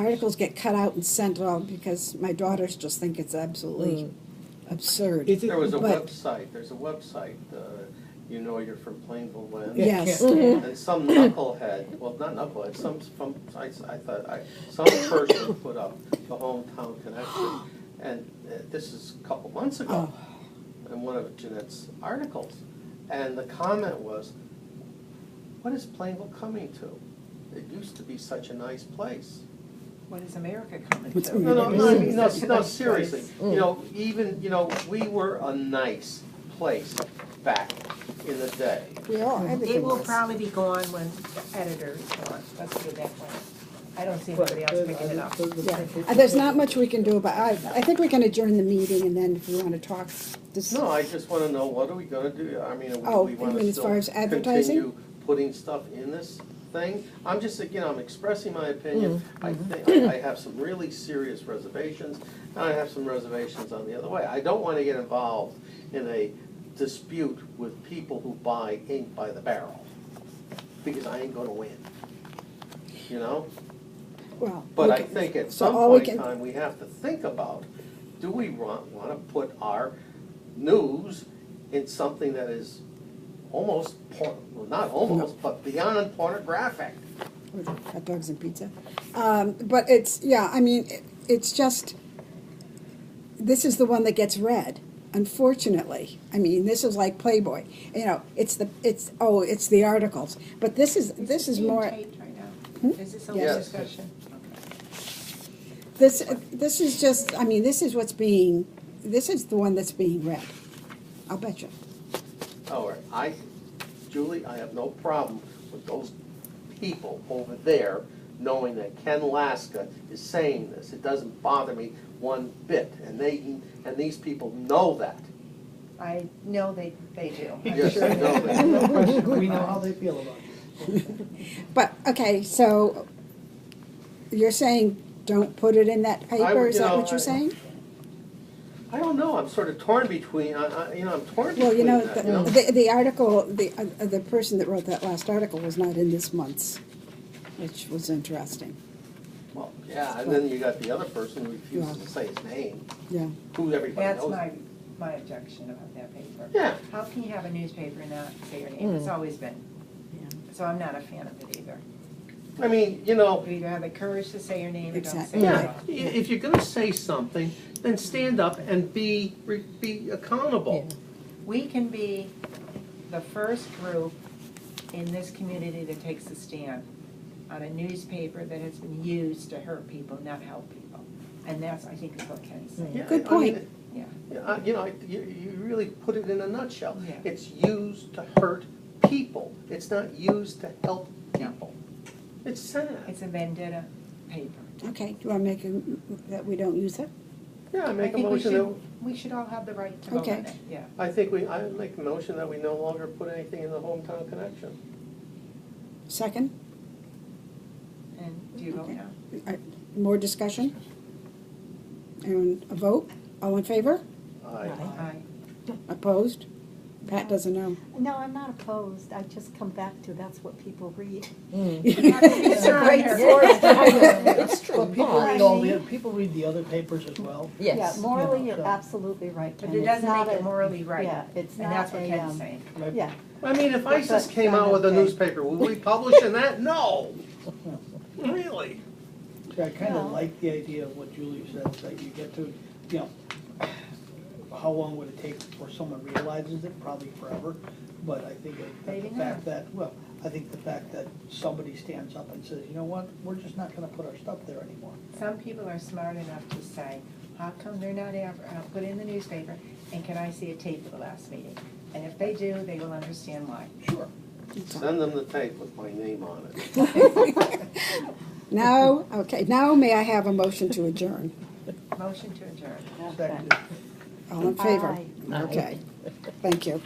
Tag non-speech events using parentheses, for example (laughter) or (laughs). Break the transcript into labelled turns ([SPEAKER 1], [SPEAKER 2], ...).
[SPEAKER 1] articles get cut out and sent out because my daughters just think it's absolutely absurd.
[SPEAKER 2] Is it-
[SPEAKER 3] There was a
[SPEAKER 1] But-
[SPEAKER 3] website, there's a website, uh, you know you're from Plainville when.
[SPEAKER 2] Yeah,
[SPEAKER 1] Yes.
[SPEAKER 2] can't-
[SPEAKER 3] And some knucklehead, well, not knucklehead, some, some, I, I thought, I, some person put up the hometown connection. And uh, this is a couple months ago, in one of Jeanette's articles. And the comment was, what is Plainville coming to? It used to be such a nice place.
[SPEAKER 4] What is America coming
[SPEAKER 1] What's
[SPEAKER 4] to?
[SPEAKER 3] No, no, no, I mean, no,
[SPEAKER 4] Such a
[SPEAKER 3] no,
[SPEAKER 4] nice
[SPEAKER 3] seriously,
[SPEAKER 4] place.
[SPEAKER 3] you know, even, you know, we were a nice place back in the day.
[SPEAKER 1] We are,
[SPEAKER 4] It
[SPEAKER 1] everything
[SPEAKER 4] will
[SPEAKER 1] is.
[SPEAKER 4] probably be gone when the editors gone, let's put it that way. I don't see anybody else picking it up.
[SPEAKER 1] Yeah, Uh, there's not much we can do about, I, I think we can adjourn the meeting and then if we wanna talk, this,
[SPEAKER 3] No, I just wanna know, what are we gonna do? I mean,
[SPEAKER 1] Oh,
[SPEAKER 3] are we, we
[SPEAKER 1] you
[SPEAKER 3] wanna
[SPEAKER 1] mean as
[SPEAKER 3] still
[SPEAKER 1] far as advertising?
[SPEAKER 3] continue putting stuff in this thing? I'm just, again, I'm expressing my opinion.
[SPEAKER 1] Mm-hmm.
[SPEAKER 3] I think, I I have some really serious reservations, and I have some reservations on the other way. I don't wanna get involved in a dispute with people who buy ink by the barrel, because I ain't gonna win, you know?
[SPEAKER 1] well.
[SPEAKER 3] But
[SPEAKER 1] we
[SPEAKER 3] I
[SPEAKER 1] can-
[SPEAKER 3] think at
[SPEAKER 1] so
[SPEAKER 3] some
[SPEAKER 1] all we
[SPEAKER 3] point in
[SPEAKER 1] can-
[SPEAKER 3] time, we have to think about, do we want, want to put our news in something that is almost, por- well, not almost, but beyond pornographic?
[SPEAKER 1] or hot dogs and pizza. Um, but it's, yeah, I mean, it, it's just, this is the one that gets read, unfortunately. I mean, this is like Playboy, you know, it's the, it's, oh, it's the articles. But this is, this is more, Hmm?
[SPEAKER 4] Is this being taped right now? Is this a
[SPEAKER 3] Yes.
[SPEAKER 4] discussion?
[SPEAKER 1] this, this is just, I mean, this is what's being, this is the one that's being read. I'll bet you.
[SPEAKER 3] All right, I, Julie, I have no problem with those people over there knowing that Ken Laska is saying this. It doesn't bother me one bit, and they, and these people know that.
[SPEAKER 4] I know they, they do. I'm
[SPEAKER 3] (laughs) Yes,
[SPEAKER 4] sure
[SPEAKER 3] I
[SPEAKER 4] they
[SPEAKER 3] know (laughs)
[SPEAKER 4] do.
[SPEAKER 3] that.
[SPEAKER 2] No question, we know how they feel about it.
[SPEAKER 1] But, okay, so you're saying don't put it in that paper, is
[SPEAKER 3] you
[SPEAKER 1] that
[SPEAKER 3] know,
[SPEAKER 1] what you're
[SPEAKER 3] I-
[SPEAKER 1] saying?
[SPEAKER 3] I don't know, I'm sort of torn between, I, I, you know, I'm torn
[SPEAKER 1] Well, you
[SPEAKER 3] between
[SPEAKER 1] know,
[SPEAKER 3] that, you know?
[SPEAKER 1] the, the- the article, the, uh, the person that wrote that last article was not in this month's, which was interesting,
[SPEAKER 3] Well, yeah, and then you got the other person who refuses to say his name,
[SPEAKER 1] yeah.
[SPEAKER 3] who everybody
[SPEAKER 4] (laughs) That's
[SPEAKER 3] knows.
[SPEAKER 4] my, my objection about that paper.
[SPEAKER 3] Yeah.
[SPEAKER 4] How can you have a newspaper and not say your name?
[SPEAKER 1] Hmm.
[SPEAKER 4] It's always been. So I'm not a fan of it either.
[SPEAKER 3] I mean, you know,
[SPEAKER 4] You either have the courage to say your name or don't say
[SPEAKER 1] Exactly.
[SPEAKER 4] it at
[SPEAKER 3] yeah,
[SPEAKER 4] all.
[SPEAKER 3] i- if you're gonna say something, then stand up and be, re- be accountable.
[SPEAKER 4] We can be the first group in this community that takes a stand on a newspaper that has been used to hurt people, not help people. And that's, I think, is what Ken's saying.
[SPEAKER 3] Yeah,
[SPEAKER 1] Good
[SPEAKER 3] I- I mean,
[SPEAKER 1] point.
[SPEAKER 4] Yeah.
[SPEAKER 3] yeah, I- You know, I- you, you really put it in a nutshell.
[SPEAKER 4] Yeah.
[SPEAKER 3] It's used to hurt people, it's not used to help people. It's sad.
[SPEAKER 4] It's a vendetta paper.
[SPEAKER 1] Okay, do I make a, m- that we don't use it?
[SPEAKER 3] Yeah, I
[SPEAKER 4] I
[SPEAKER 3] make a
[SPEAKER 4] think we
[SPEAKER 3] motion that,
[SPEAKER 4] should, we should all have the right to vote
[SPEAKER 1] Okay.
[SPEAKER 4] on it, yeah.
[SPEAKER 3] I think we, I make a motion that we no longer put anything in the hometown connection.
[SPEAKER 1] Second,
[SPEAKER 4] And do you vote
[SPEAKER 1] Okay.
[SPEAKER 4] now?
[SPEAKER 1] Uh, more discussion? And a vote, all in favor,
[SPEAKER 3] Aye.
[SPEAKER 4] Aye.
[SPEAKER 1] opposed? Pat doesn't know.
[SPEAKER 5] No, I'm not opposed, I just come back to, that's what people
[SPEAKER 4] (laughs)
[SPEAKER 5] read.
[SPEAKER 4] It's a (laughs) great
[SPEAKER 6] It's true.
[SPEAKER 2] But people read all the, people read the other papers as well.
[SPEAKER 6] Yes.
[SPEAKER 5] Yeah, morally,
[SPEAKER 2] Yeah,
[SPEAKER 5] you're
[SPEAKER 2] so-
[SPEAKER 5] absolutely right, Ken.
[SPEAKER 4] But it
[SPEAKER 5] It's
[SPEAKER 4] doesn't
[SPEAKER 5] not
[SPEAKER 4] make it
[SPEAKER 5] a-
[SPEAKER 4] morally right.
[SPEAKER 5] Yeah, it's
[SPEAKER 4] And
[SPEAKER 5] not
[SPEAKER 4] that's what
[SPEAKER 5] a,
[SPEAKER 4] Ken's
[SPEAKER 5] um,
[SPEAKER 4] saying.
[SPEAKER 2] Right?
[SPEAKER 5] yeah,
[SPEAKER 3] I mean, if ISIS
[SPEAKER 5] But-
[SPEAKER 3] came out with a
[SPEAKER 5] okay.
[SPEAKER 3] newspaper, would we publish in that? No. Really?
[SPEAKER 2] So I kind
[SPEAKER 5] Well-
[SPEAKER 2] of like the idea of what Julie said, that you get to, you know, how long would it take before someone realizes it? Probably forever. But I think that
[SPEAKER 4] Maybe
[SPEAKER 2] the
[SPEAKER 4] not.
[SPEAKER 2] fact that, well, I think the fact that somebody stands up and says, you know what, we're just not gonna put our stuff there anymore.
[SPEAKER 4] Some people are smart enough to say, how come they're not ever, uh, put in the newspaper, and can I see a tape of the last meeting? And if they do, they will understand why.
[SPEAKER 2] Sure.
[SPEAKER 3] Send them the tape with my name on it.
[SPEAKER 1] Now, okay, now may I have a motion to adjourn?
[SPEAKER 4] Motion to adjourn.
[SPEAKER 2] Second.
[SPEAKER 1] All in favor?
[SPEAKER 5] Aye.
[SPEAKER 1] Okay, thank you.